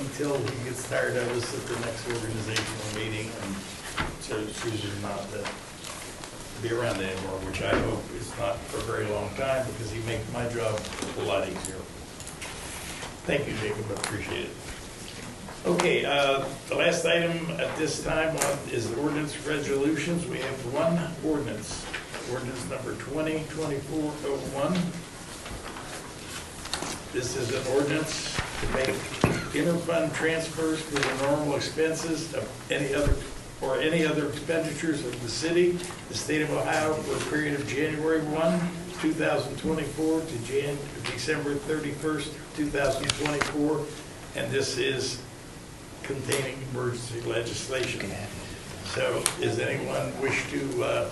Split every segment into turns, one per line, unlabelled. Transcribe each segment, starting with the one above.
until he gets tired of us at the next organizational meeting and so chooses not to be around anymore, which I hope is not for a very long time because he makes my job a lot easier. Thank you, Jacob, I appreciate it. Okay, uh, the last item at this time on- is ordinance resolutions. We have one ordinance, ordinance number 202401. This is an ordinance to make interfund transfers for the normal expenses of any other, or any other expenditures of the city, the state of Ohio for a period of January 1, 2024 to Jan, December 31st, 2024. And this is containing emergency legislation. So does anyone wish to, uh,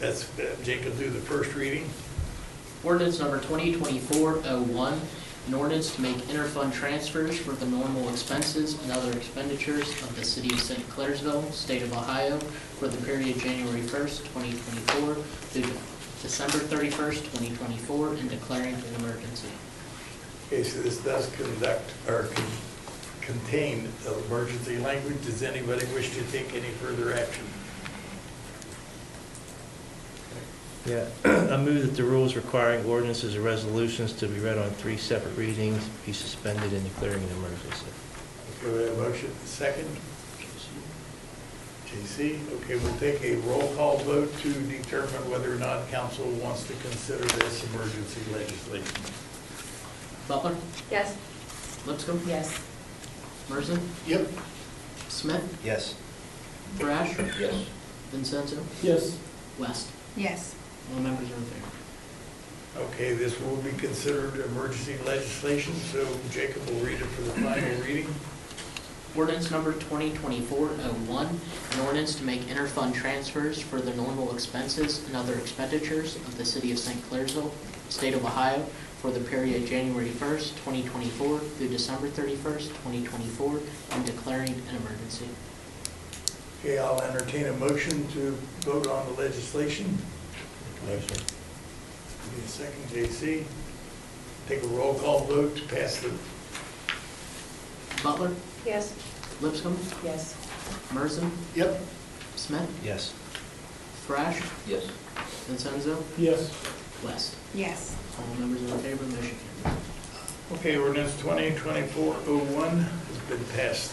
that's, uh, Jacob do the first reading?
Ordinance number 2024-01, an ordinance to make interfund transfers for the normal expenses and other expenditures of the city of St. Clairsville, state of Ohio, for the period January 1st, 2024 through December 31st, 2024, and declaring an emergency.
Okay, so this does conduct, or con- contain the emergency language. Does anybody wish to take any further action?
Yeah, I move that the rules requiring ordinances or resolutions to be read on three separate readings be suspended and declaring an emergency.
Okay, we have a motion, second. JC, okay, we'll take a roll call vote to determine whether or not council wants to consider this emergency legislation.
Butler?
Yes.
Lipscomb?
Yes.
Merson?
Yep.
Smith?
Yes.
Thrash?
Yes.
Vincenzo?
Yes.
West?
Yes.
All members are in favor.
Okay, this will be considered emergency legislation, so Jacob will read it for the final reading.
Ordinance number 2024-01, an ordinance to make interfund transfers for the normal expenses and other expenditures of the city of St. Clairsville, state of Ohio, for the period January 1st, 2024 through December 31st, 2024, and declaring an emergency.
Okay, I'll entertain a motion to vote on the legislation.
Motion.
Give me a second, JC. Take a roll call vote to pass the,
Butler,
Yes.
Lipscomb,
Yes.
Merson,
yep,
Smith,
Yes.
Thrash,
Yes.
Vincenzo,
Yes.
West.
Yes.
All members in favor, motion carries.
okay, ordinance 2024-01 has been passed.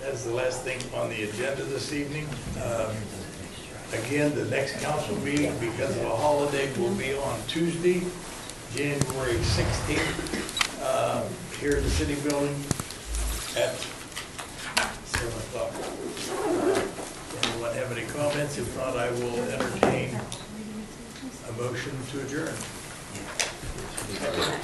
That's the last thing on the agenda this evening. Um, Again, the next council meeting, because of a holiday, will be on Tuesday, January 16th, um, here in the city building at 7 o'clock. Anyone have any comments? If not, I will entertain a motion to adjourn.